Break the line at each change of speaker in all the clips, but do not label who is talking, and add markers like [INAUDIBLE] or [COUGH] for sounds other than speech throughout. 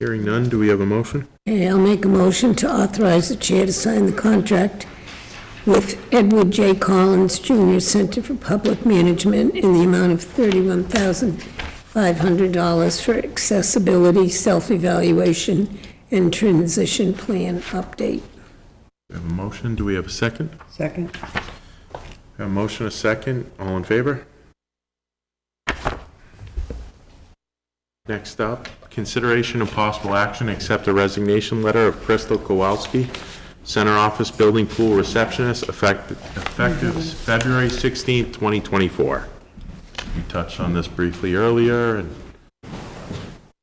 Hearing none, do we have a motion?
Okay, I'll make a motion to authorize the chair to sign the contract with Edward J. Collins Jr. Center for Public Management in the amount of $31,500 for accessibility, self-evaluation, and transition plan update.
We have a motion, do we have a second?
Second?
We have A motion, a second, all in favor? Next up, consideration of possible action, accept a resignation letter of Crystal Kowalski, Center Office Building Pool Receptionist, effect- effective February 16th, 2024. We touched on this briefly earlier, and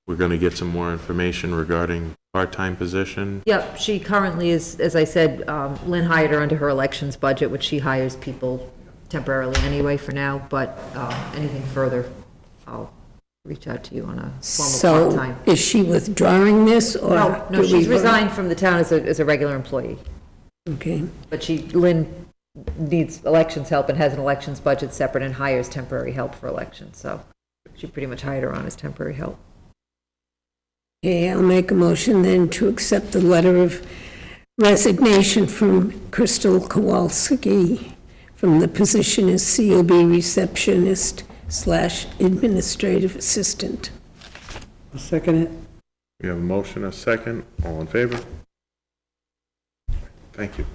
we're going to get some more information regarding part-time position.
Yep, she currently is, as I said, um, Lynn hired her under her elections budget, which she hires people temporarily anyway for now, but um, anything further, I'll reach out to you on a formal
So
part-time.
is she withdrawing this, or?
No, no,
do we
she's
vote?
resigned from the town as a, as a regular employee,
Okay,
but she, Lynn needs elections help and has an elections budget separate and hires temporary help for elections, so she pretty much hired her on as temporary help.
Okay, I'll make a motion then to accept the letter of resignation from Crystal Kowalski from the position as COB receptionist slash administrative assistant.
I'll second it.
We have a motion, a second, all in favor? Thank you.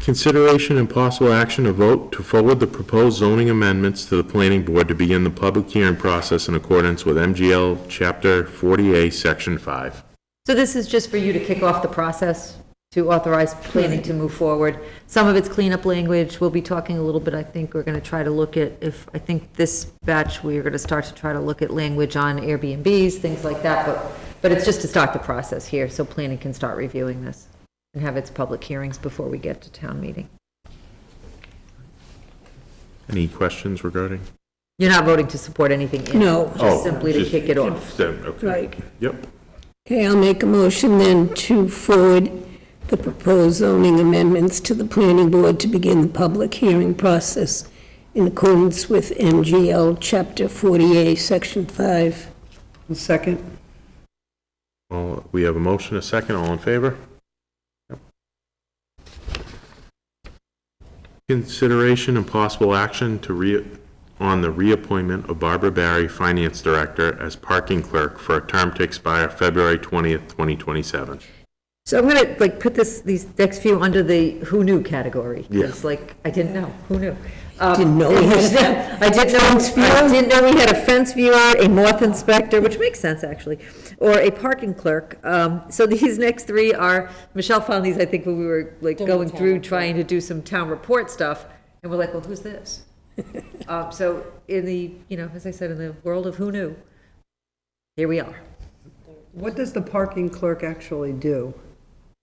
Consideration and possible action to vote to forward the proposed zoning amendments to the planning board to begin the public hearing process in accordance with MGL Chapter 40A, Section 5.
So this is just for you to kick off the process to authorize planning to move forward. Some of it's cleanup language, we'll be talking a little bit, I think, we're gonna try to look at, if, I think this batch, we're gonna start to try to look at language on Airbnbs, things like that, but, but it's just to start the process here, so planning can start reviewing this and have its public hearings before we get to town meeting.
Any questions regarding?
You're not voting to support anything in it?
No.
Oh,
Just simply to
just-
kick it off.
so, okay.
Right.
Yep,
Okay, I'll make a motion then to forward the proposed zoning amendments to the planning board to begin the public hearing process in accordance with MGL Chapter 48, Section 5.
I'll second.
All- we have a motion, a second, all in favor? Yep. Consideration and possible action to re, on the reappointment of Barbara Barry, Finance Director, as parking clerk for a term to expire February 20th, 2027.
So I'm gonna, like, put this, these next few under the who knew category.
Yeah.
It's like, I didn't know, who knew? Um,
Didn't
[LAUGHS]
know we had
I didn't know, I didn't know we had a fence viewer, a moth inspector, which makes sense, actually, or a parking clerk. Um, So [LAUGHS] these next three are, Michelle found these, I think, when we were, like, going through, trying to do some town report stuff, and we're like, well,
[LAUGHS]
who's this? Um, So in the, you know, as I said, in the world of who knew, here we are.
What does the parking clerk actually do?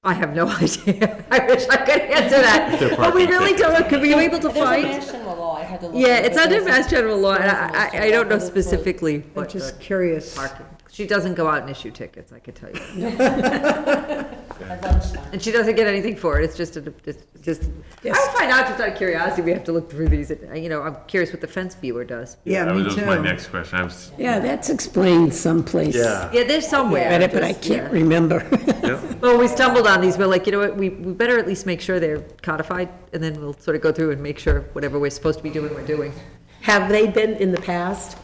I have no [LAUGHS] idea. I wish I could answer that. But we really don't, could we be able to find?
There's a national law, I had to look.
Yeah, it's
but
under
there's a-
Mass General Law, and
there's a
I,
national
I- I don't
law
know
for the-
specifically
I'm
what the
just curious.
parking. She doesn't go out and issue tickets, I could tell you. [LAUGHS]
At lunchtime.
And she doesn't get anything for it, it's just, a- it's just, I'll find out just out of curiosity, we have to look through these, and, you know, I'm curious what the fence viewer does.
Yeah,
That
me
was
too.
my next question, I was.
Yeah, that's explained someplace.
Yeah, there's somewhere.
read it, but I
just- yeah.
can't remember. [LAUGHS]
Well, we stumbled on these, we're like, you know what, we, we better at least make sure they're codified, and then we'll sort of go through and make sure whatever we're supposed to be doing, we're doing.
Have they been in the past?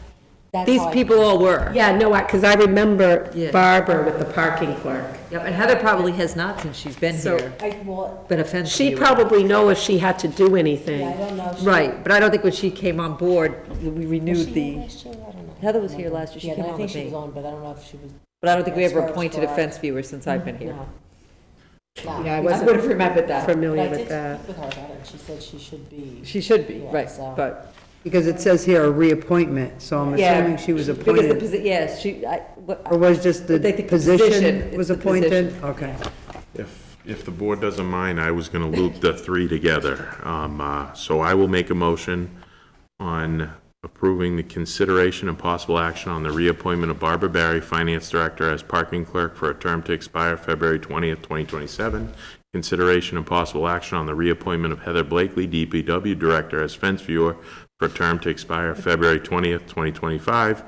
That's
These
how I-
people all were.
Yeah, no, because I remember
Yeah.
Barbara with the parking clerk.
Yep, and Heather probably has not since she's been
So-
here,
I, well,
been a fence
She
viewer.
probably know if she had to do
I
anything.
don't know. She-
Right, but I don't think when she came on board, we
was
renewed
she here
the,
last year? I don't know.
Heather was here last year, she
Yeah,
came
I
on
think
with
she was
me.
on, but I don't know if she was,
But I don't think we
As
ever
far as
appointed a
for-
fence viewer since I've been here.
no.
Yeah, I
No.
wasn't.
would've remembered that.
But I
Familiar
did
with that.
speak with her about it, and she said she should be.
She should be,
Yeah,
right,
so-
but.
Because it says here a reappointment, so I'm
Yeah,
assuming she was
because the
appointed.
posi- Yes, she, I, what-
Or was just the
They think the position,
position
it's
was
the
appointed?
position.
Okay.
If, if the board doesn't mind, I was going to loop the three together. Um, uh, So I will make a motion on approving the consideration and possible action on the reappointment of Barbara Barry, Finance Director, as parking clerk for a term to expire February 20th, 2027. Consideration and possible action on the reappointment of Heather Blakely, DPW Director, as fence viewer for a term to expire February 20th, 2025.